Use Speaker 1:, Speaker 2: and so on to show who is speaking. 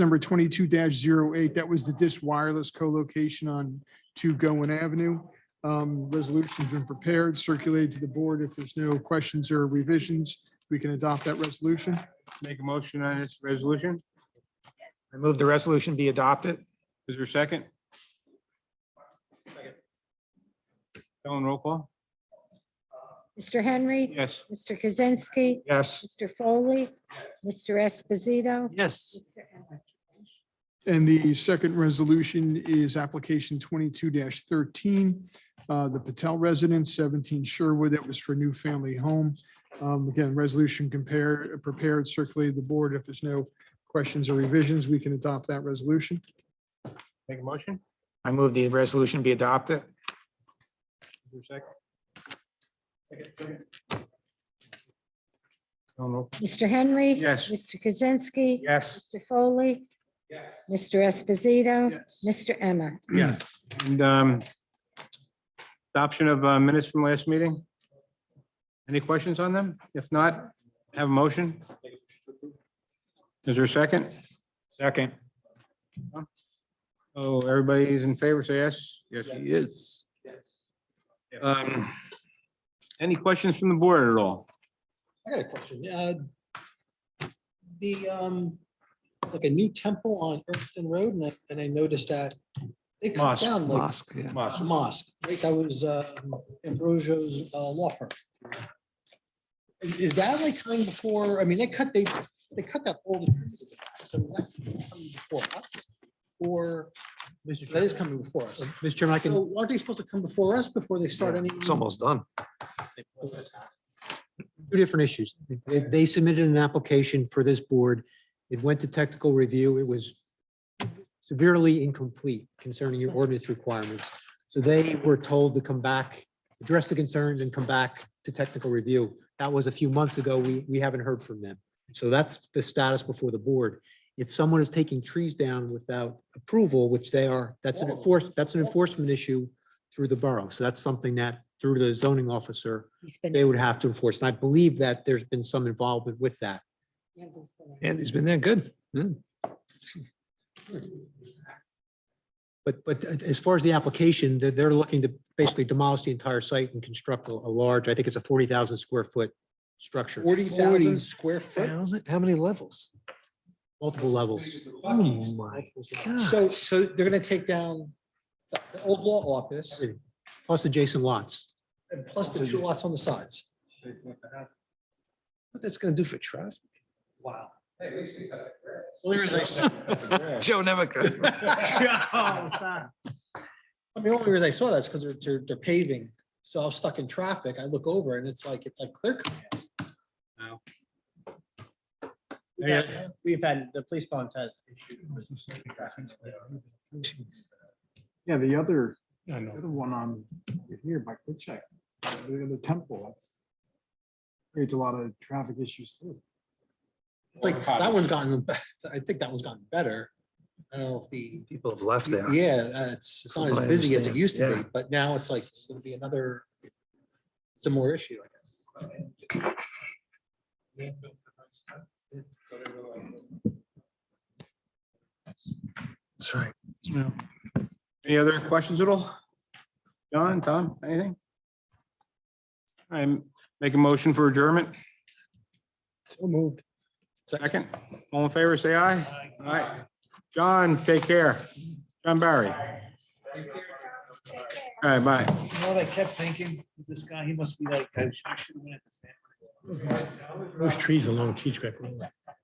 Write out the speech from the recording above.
Speaker 1: number twenty-two 8 That was the Dish Wireless co-location on Two Goen Avenue. Um, Resolution's been prepared, circulated to the board. If there's no questions or revisions, we can adopt that resolution.
Speaker 2: Make a motion on this resolution.
Speaker 3: I move the resolution be adopted.
Speaker 2: Is there a second? Ellen, roll call.
Speaker 4: Mr. Henry,
Speaker 2: Yes.
Speaker 4: Mr. Kaczynski,
Speaker 3: Yes.
Speaker 4: Mr. Foley, Mr. Esposito.
Speaker 5: yes,
Speaker 4: Mr. Emma.
Speaker 1: And the second resolution is application twenty-two thirteen, uh, the Patel residence, seventeen Sherwood. That was for new family home. Um, again, resolution compared, prepared, circulated to the board. If there's no questions or revisions, we can adopt that resolution.
Speaker 2: Make a motion.
Speaker 3: I move the resolution be adopted.
Speaker 2: Is there a second? Ellen, roll.
Speaker 4: Mr. Henry.
Speaker 2: Yes.
Speaker 4: Mr. Kaczynski.
Speaker 3: Yes.
Speaker 4: Mr. Foley. Mr. Esposito. Mr. Emma.
Speaker 2: Yes. And um, adoption of uh, minutes from last meeting. Any questions on them? If not, have a motion. Is there a second?
Speaker 3: Second.
Speaker 2: Oh, everybody is in favor, say yes. Yes.
Speaker 5: he is.
Speaker 2: Um, Any questions from the board at all?
Speaker 6: I got a question. Uh, The, um, it's like a new temple on Irvington Road and I, and I noticed that they cut
Speaker 2: Mosque.
Speaker 6: down like
Speaker 5: Mosque, yeah.
Speaker 6: a mosque. Like that was, uh, Ambrosio's, uh, law firm. Is is that like coming before, I mean, they cut, they, they cut that all the trees. at the back, So is that coming before us? Or
Speaker 7: Mr.
Speaker 6: that
Speaker 7: Chairman,
Speaker 6: is coming before us?
Speaker 7: Mr. Chairman, I can,
Speaker 6: So aren't they supposed to come before us before they start any?
Speaker 5: It's almost done.
Speaker 7: two different issues. They- They submitted an application for this board. It went to technical review. It was severely incomplete concerning your ordinance requirements. So they were told to come back, address the concerns and come back to technical review. That was a few months ago. We, we haven't heard from them. So that's the status before the board. If someone is taking trees down without approval, which they are, that's an enforced, that's an enforcement issue through the borough. So that's something that through the zoning officer,
Speaker 4: He's been.
Speaker 7: they would have to enforce. And I believe that there's been some involvement with that.
Speaker 5: Andy's been there, good. Yeah.
Speaker 7: But, but as far as the application, they're, they're looking to basically demolish the entire site and construct a, a large, I think it's a forty thousand square foot structure,
Speaker 6: Forty thousand square foot?
Speaker 5: Thousand- How many levels?
Speaker 7: multiple levels.
Speaker 5: Oh, my God.
Speaker 6: So, so they're gonna take down the the old law office
Speaker 7: Everything. Plus adjacent lots.
Speaker 6: and plus the two lots on the sides.
Speaker 5: What that's gonna do for traffic?
Speaker 6: Wow. Only reason I saw,
Speaker 5: Joe never could.
Speaker 6: Oh, I mean, only reason I saw that's because they're, they're, they're paving. So I was stuck in traffic. I look over and it's like, it's like clear. cut.
Speaker 2: Any other-
Speaker 8: We've had, the police department has issued business.
Speaker 9: Yeah, the other, the other one on here by Quick Check, the other temple, that's creates a lot of traffic issues too.
Speaker 6: It's like, that one's gotten, I think that one's gotten better. I don't know if the,
Speaker 5: People have left there.
Speaker 6: yeah, uh, it's, it's not as
Speaker 5: I
Speaker 6: busy as it
Speaker 5: understand,
Speaker 6: used to
Speaker 5: yeah.
Speaker 6: be, but now it's like, it's gonna be another, similar issue, I guess.
Speaker 5: That's right.
Speaker 2: Any other questions at all? John, Tom, anything? I'm make a motion for adjournment.
Speaker 7: So moved.
Speaker 2: Second, all in favor, say aye. Aye. John, take care. John Barry. All right, bye.
Speaker 8: You know what I kept thinking, this guy, he must be like, I should have went at the. Those trees along Cheech Creek Road.